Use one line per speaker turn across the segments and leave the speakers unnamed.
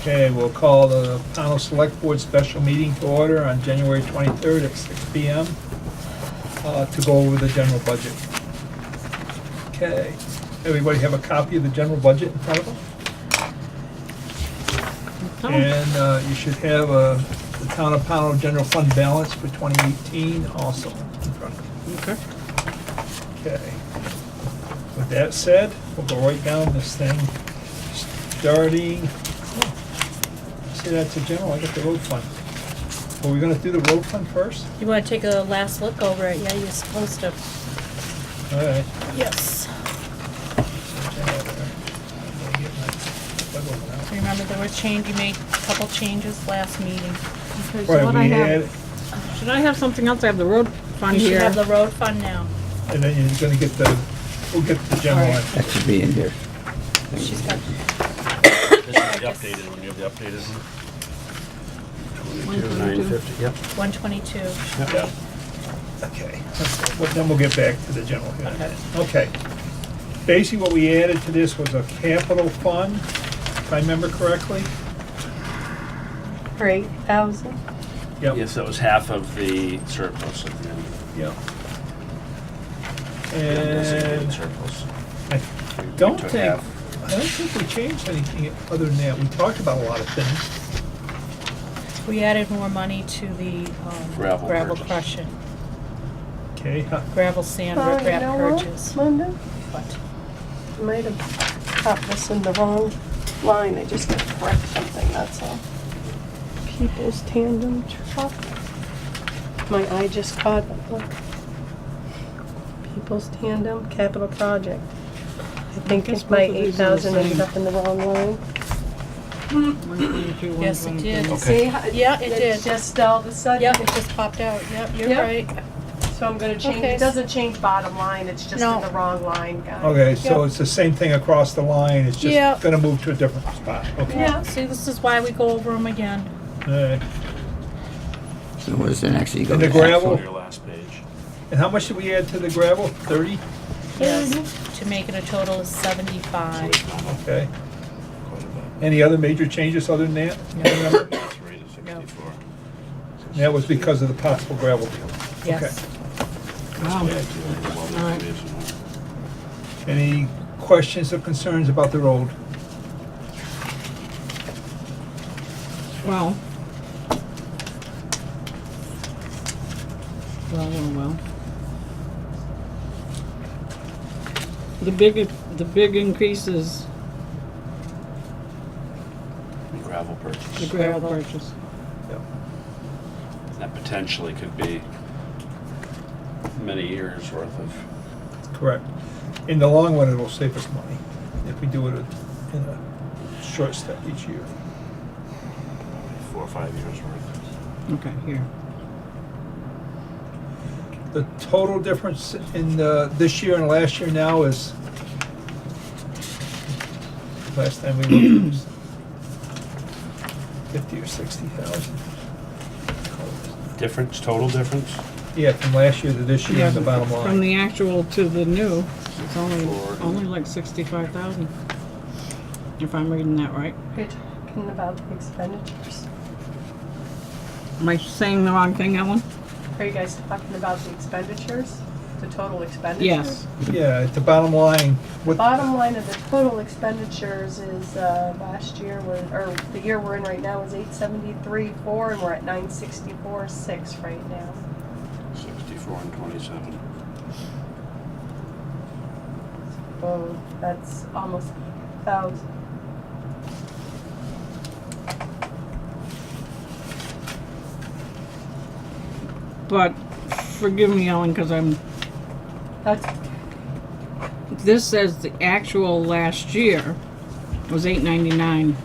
Okay, we'll call the panel select board special meeting to order on January 23rd at 6 PM uh, to go over the general budget. Okay, everybody have a copy of the general budget in front of them? And uh, you should have uh, the town of Pownell general fund balance for 2018 also in front of you.
Okay.
Okay. With that said, we'll go right down this thing, starting, see, that's a general, I got the road fund. Were we gonna do the road fund first?
You want to take a last look over it? Yeah, you're supposed to.
All right.
Yes. Remember, there was change, you made a couple changes last meeting.
Okay, so
Right,
what I
we had,
have, should I have something else? I have the road fund
You should
here.
have the road fund now.
and then you're gonna get the, we'll get the general.
All
one.
That should be in here.
She's got,
This is the updated one, you have the updated one?
Nine fifty, yep.
one twenty-two.
Yeah.
Okay, well, then we'll get back to the general. here in a minute. Okay. Basically, what we added to this was a capital fund, if I remember correctly.
For eight thousand?
Yep.
Yes, that was half of the surplus at the end.
Yeah.
Undesignated
And
Surplus.
I don't
took
think,
half.
I don't think we changed anything other than that. We talked about a lot of things.
We added more money to the um,
Gravel
gravel
purchase.
crushing,
Okay, huh,
gravel sand,
Oh, you
riprap
know what,
purchase.
Linda,
What?
I might have caught this in the wrong line, I just got to correct something, that's all. People's tandem truck. My eye just caught it, look. People's tandem capital project. I think
guess
it's my
both of these are the
eight thousand ended
same.
up in the wrong line.
Yes, it did.
See, how
Yeah, it did.
It's just all of a sudden.
Yep, it just popped out. Yep, you're
Yep.
right.
So I'm gonna change,
Okay.
it doesn't change bottom line, it's just
No.
in the wrong line, guys.
okay, so
Yep.
it's the same thing across the line. It's
Yeah.
just gonna move to a different spot. Okay.
Yeah.
See, this is why we go over them again.
All right.
So where's the next, you go
And
to
the gravel?
Go
axle?
to your last page.
And how much did we add to the gravel? Thirty?
Mm-hmm.
Yes, to make it a total of seventy-five.
Okay.
Quite a bit.
Any other major changes other than that? You remember?
That's right, it's 64.
That was because of the possible gravel deal.
Yes.
Oh,
Wow,
Well, this
Alright.
is one.
Any questions or concerns about the road?
well. Well, well, well. The big, the big increase is
And Gravel
the
purchase.
gravel purchase.
That potentially could be many years worth of,
Correct. In the long run, it'll save us money if we do it in a short step each year.
four or five years worth.
Okay, here.
The total difference in the, this year and last year now is, last time we looked, it was fifty or sixty thousand.
Difference, total difference?
Yeah, from last year to this year
Yeah,
is the bottom
From
line.
the actual to the new, it's only,
Forward.
only like sixty-five thousand. If I'm reading that right.
We're talking about the expenditures.
Am I saying the wrong thing, Ellen?
Are you guys talking about the expenditures, the total expenditures?
Yes.
Yeah, it's the bottom line.
The
What,
Bottom line of the total expenditures is, uh, last year, we're- or the year we're in right now is eight seventy-three four, and we're at nine sixty-four six right now.
64 and 27.
Whoa, that's almost thousand.
But forgive me, Ellen, because I'm
That's,
This says the actual last year was eight ninety-nine,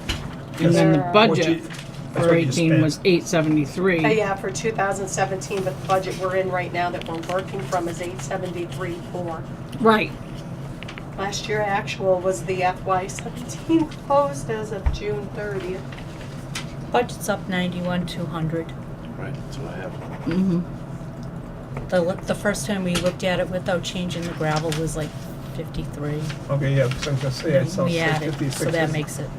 and then the
Yes.
budget
That's
for
what you
eighteen was eight seventy-three.
uh, yeah, for two thousand seventeen, but the budget we're in right now that we're working from is eight seventy-three four.
Right,
Last year actual was the FY seventeen closed as of June thirtieth.
Budget's up ninety-one, two hundred.
Right, that's what I have.
mm-hmm,
The, l- the first time we looked at it without changing the gravel was like fifty-three.
okay, yeah, so I was gonna say, I saw
We added,
fifty, sixty.
so that makes it